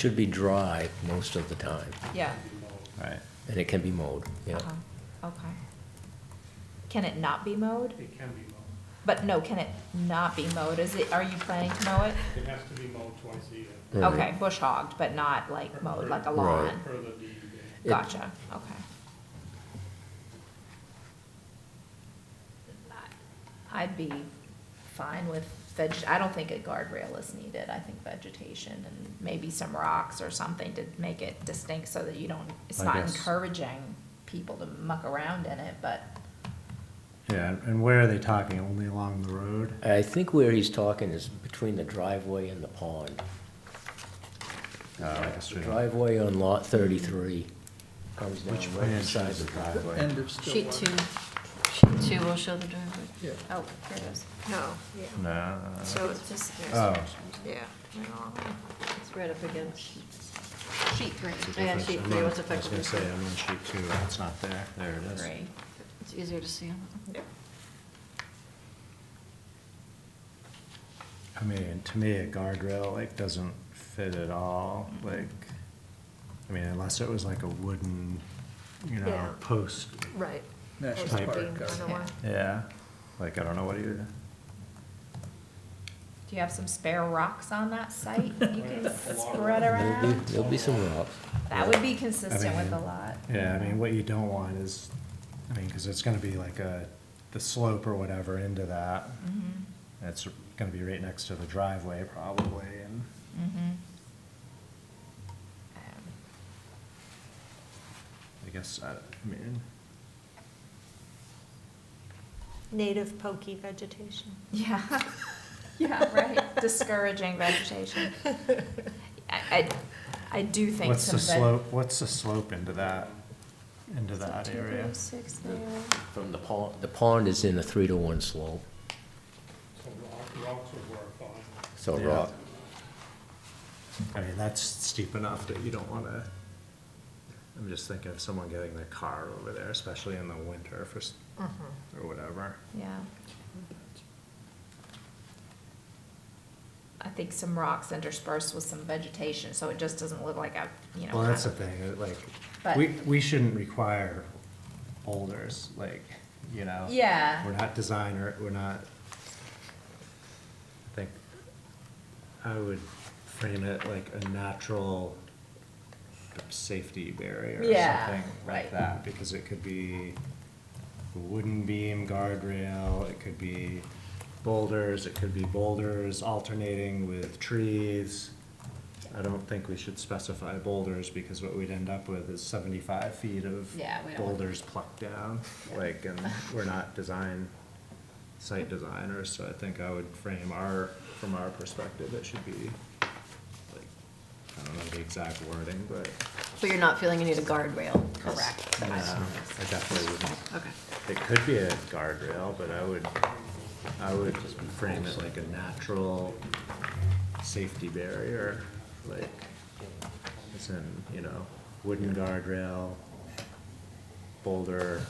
should be dry most of the time, Yeah, Right. and it can be mowed, yeah. uh-huh, okay. Can it not be mowed? It can be mowed. But no, can it not be mowed? Is it, are you planning to mow it? It has to be mowed twice a year. Right. Okay, bush hogged, but not like mowed like a Mm-hmm. Right. lawn? Per the E DEP. It- Gotcha, okay. I'd be fine with veg, I don't think a guardrail is needed. I think vegetation and maybe some rocks or something to make it distinct so that you don't, it's I not guess. encouraging people to muck around in it, but Yeah, and where are they talking? Only along the road? I think where he's talking is between the driveway and the pond. Oh, I guess we don't. Driveway on lot thirty-three comes down Which right branch beside is the the driveway. driveway? of Sheet two, sheet two will show the driveway. Oh, here it is. No, yeah, No. so it's just, Oh, yeah. no. It's right up against sheet three. it's a Yeah, difference. sheet I'm three on- I was was effectively. gonna say, I'm on sheet two, and it's not there. There it is. Three. It's easier to see on that. Yep. I mean, to me, a guardrail, like, doesn't fit at all, like, I mean, unless it was like a wooden, you Yeah. know, post. Right. National Or Park. being kind of Yeah. one. Yeah, like, I don't know what you, Do you have some spare rocks on that site that you can spread There'll be, around? there'll be some rocks. That would be consistent with mean, the lot. yeah, I mean, what you don't want is, I mean, cause it's gonna be like a, the slope or whatever into that. Mhm, It's gonna be right next to the driveway probably, and. mhm. Um, I guess, I I mean, Native pokey vegetation. Yeah, yeah, right, discouraging vegetation. I, I, I do think what's some the veg- slope, what's the slope into that, into that area? From the pond, the pond is in a three to one slope, So rock- rocks would work fine. so Yeah. rock, I mean, that's steep enough that you don't wanna, I'm just thinking of someone getting their car over there, especially in the winter for, s- Mm-hmm. or whatever. Yeah. I think some rocks interspersed with some vegetation, so it just doesn't look like a, you know. Well, that's the kind thing, it, like, But- we, we shouldn't require boulders, like, you know? of- Yeah. We're not designer, we're not, I think, I would frame it like a natural safety barrier or Yeah, something right. like that, because it could be a wooden beam guardrail, it could be boulders, it could be boulders alternating with trees. I don't think we should specify boulders, because what we'd end up with is seventy-five feet of Yeah, we don't want- boulders plucked down, like, and we're not design, site designers, so I think I would frame our, from our perspective, it should be, like, I don't know the exact wording, but. But you're not feeling you need a guardrail. Correct. Yeah, I definitely wouldn't, Okay. it could be a guardrail, but I would, I would frame it like a natural safety barrier, like, it's in, you know, wooden guardrail, boulder,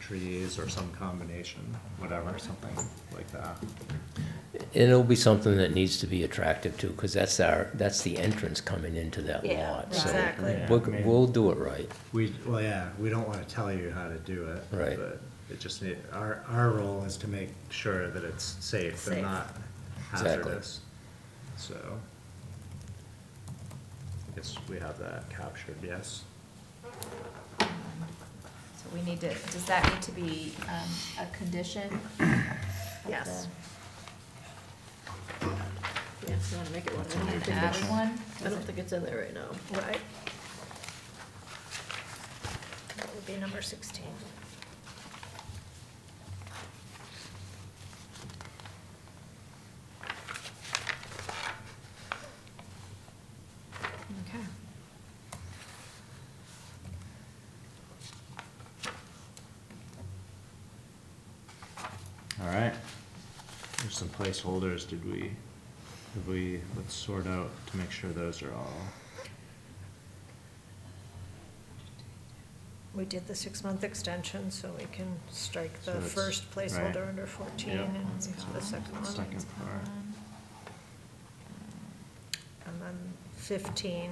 trees, or some combination, whatever, something like that. And it'll be something that needs to be attractive too, because that's our, that's the entrance coming into that Yeah, lot. So exactly. Yeah, We'll, I mean- we'll do it right. We, well, yeah, we don't wanna tell you how to do it. Right. But it just need, our, our role is to make sure that it's safe Safe. and not Exactly. hazardous. So. I guess we have that captured, yes? So we need to, does that need to be, um, a condition? Yes. Yeah, if you wanna make it one. That's a new I Add condition. one? don't think it's in there right now. Right. That would be number sixteen. Okay. Alright. There's some placeholders, did we, did we, let's sort out to make sure those are all. We did the six-month extension, so we can strike So the it's- first right. placeholder under fourteen Yeah. and One's the gone. second one. Second. One's floor. gone. And on 15